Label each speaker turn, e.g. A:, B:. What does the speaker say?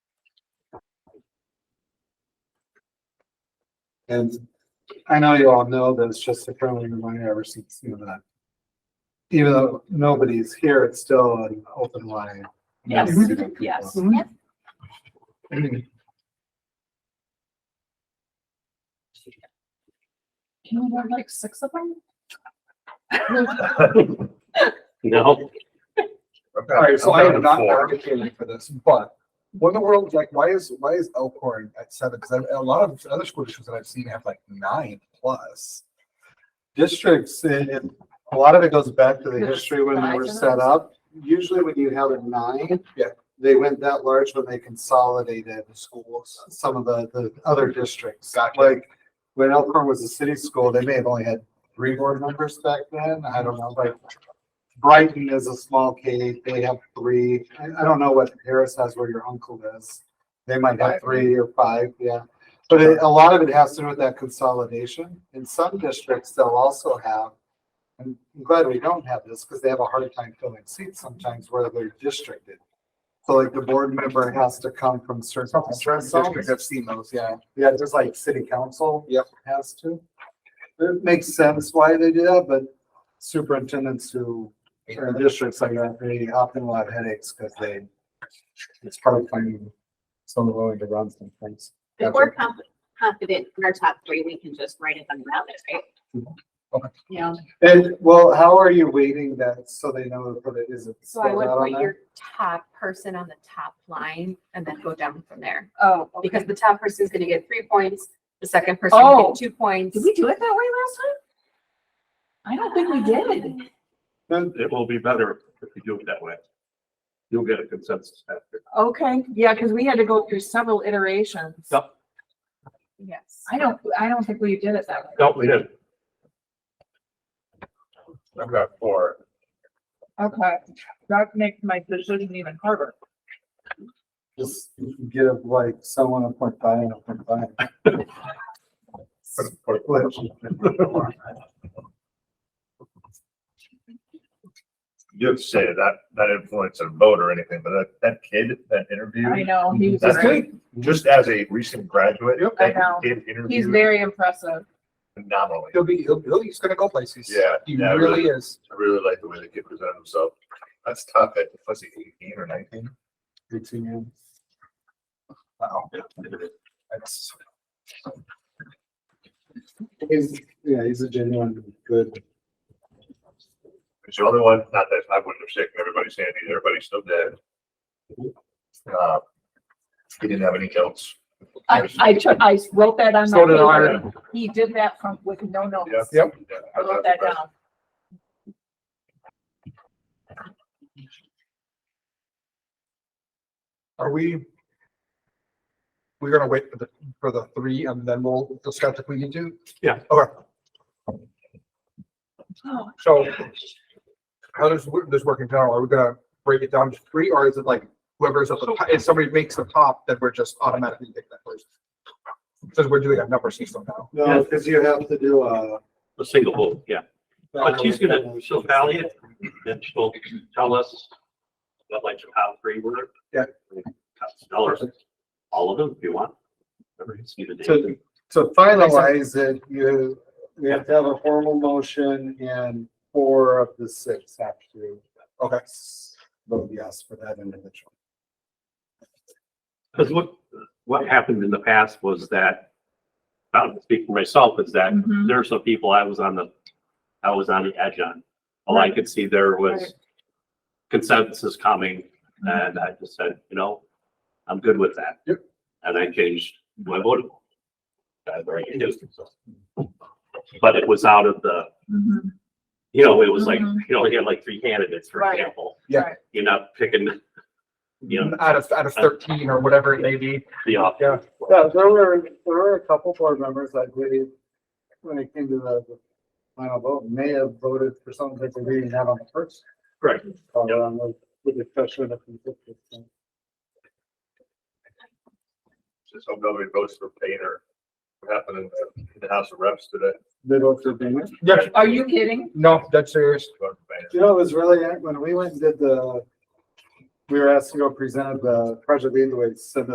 A: And I know you all know that it's just a friendly reminder ever since, you know, that even though nobody's here, it's still an open line.
B: Yes, Mm-hmm.
A: Mhm.
B: yes.
C: You know, like six of them?
D: No.
A: All right, so I am not
D: Four.
A: advocating for this, but what in the world, like, why is, why is Elkhorn at seven? Because a lot of other school districts that I've seen have like nine plus. Districts, and and a lot of it goes back to the history when they were set up. Usually when you have a nine. Yeah. They went that large when they consolidated the schools, some of the, the other districts. Like, when Elkhorn was a city school, they may have only had three board members back then. I don't know, like, Brighton is a small K, they have three. I, I don't know what Harris has where your uncle is. They might have three or five, yeah. But it- a lot of it has to do with that consolidation. In some districts, they'll also have, and I'm glad we don't have this because they have a hard time filling seats sometimes where they're districted. So like the board member has to come from certain districts. I've seen those, yeah. Yeah, just like city council. Yep. Has to. It makes sense why they do that, but superintendents who or districts like that, they often will have headaches because they, it's hard finding someone willing to run some things.
B: If we're conf- confident in our top three, we can just write it on the ballot, right?
C: Yeah,
A: And, well, how are you weighting that so they know that it isn't?
E: So I
A: spelled
E: would
A: out on
E: put
A: there?
E: your top person on the top line and then go down from there.
C: oh,
E: Because
C: okay.
E: the top person is gonna get three points, the second person will
C: Oh.
E: get two points.
C: Did we do it that way last time? I don't think we did.
A: Then-
D: It will be better if you do it that way. You'll get a consensus after.
C: Okay, yeah, because we had to go through several iterations.
D: Yep.
E: Yes.
C: I don't, I don't think we did it that way.
D: No, we didn't.
F: I've got four.
C: Okay, that makes my decision even harder.
A: Just you can get up like someone a point five and a point five.
F: Put-
A: Which-
F: You'd say that, that influence a vote or anything, but that, that kid, that
C: I
F: interview,
C: know, he was
F: that's
C: great.
F: good. Just as a recent graduate,
A: Yep.
C: I
F: that
C: know.
F: kid
C: He's
F: interviewed
C: very impressive.
F: phenomenally.
A: He'll be, he'll, he'll- he's gonna go places.
F: Yeah,
A: He
F: yeah,
A: really
F: really.
A: is.
F: I really like the way the kid presented himself. That's tough at, was he eighteen or nineteen?
A: Eighteen years. Wow. That's. He's, yeah, he's a genuine good
F: It's the only one, not that I wouldn't have shaken everybody's hand either, everybody's still dead. Uh, He didn't have any kills.
C: I, I took, I wrote that on
A: So did
C: my
A: I.
C: paper. He did that from, with no
F: Yeah.
C: notes.
A: Yep.
F: Yeah,
C: I wrote that down.
A: Are we? We're gonna wait for the, for the three and then we'll discuss if we need to?
D: Yeah.
A: Okay,
C: Oh,
A: so how does wo- this work in general? Are we gonna break it down to three or is it like whoever's at the, top- if somebody makes the top, then we're just automatically taking that person? Since we're doing a number system now.
D: No,
A: because you have to do a.
D: A single vote, yeah. But she's gonna, she'll tally it and she'll tell us what like the top three were.
A: Yeah.
D: Tell her all of them if you want. Whatever you see the date.
A: To, to finalize it, you, we have to have a formal motion and four of the six have to. Okay. Vote yes for that individual.
D: Because what, what happened in the past was that, I don't speak for myself, is that
C: Mhm.
D: there are some people I was on the, I was on the edge on. All I could see there was
C: Right. Mm-hmm.
D: consensus coming and I just said, you know, I'm good with that.
A: Yep.
D: And I changed my vote. That's very interesting, so.
A: Mm-hmm.
D: But it was out of the,
C: mhm.
D: you know, it was like,
C: Mhm.
D: you know, you had like three candidates, for
C: Right.
D: example.
A: Yeah.
C: Right.
D: You're not picking, you know,
A: Out of, out of thirteen or whatever it may be.
D: the off.
A: Yeah. Yeah, there were, there were a couple board members that really, when it came to the the final vote, may have voted for something that they didn't have on the first.
D: Right.
A: call around with- with the pressure of the conflict.
F: Just hope nobody votes for Painter. What happened in the- in the House of Reps today?
A: They voted for Bennett.
F: Yes.
C: Are you kidding?
A: No, that's serious.
F: Voted for Boehner.
A: You know, it was really, when we went and did the, we were asked to go present the project lead the way, said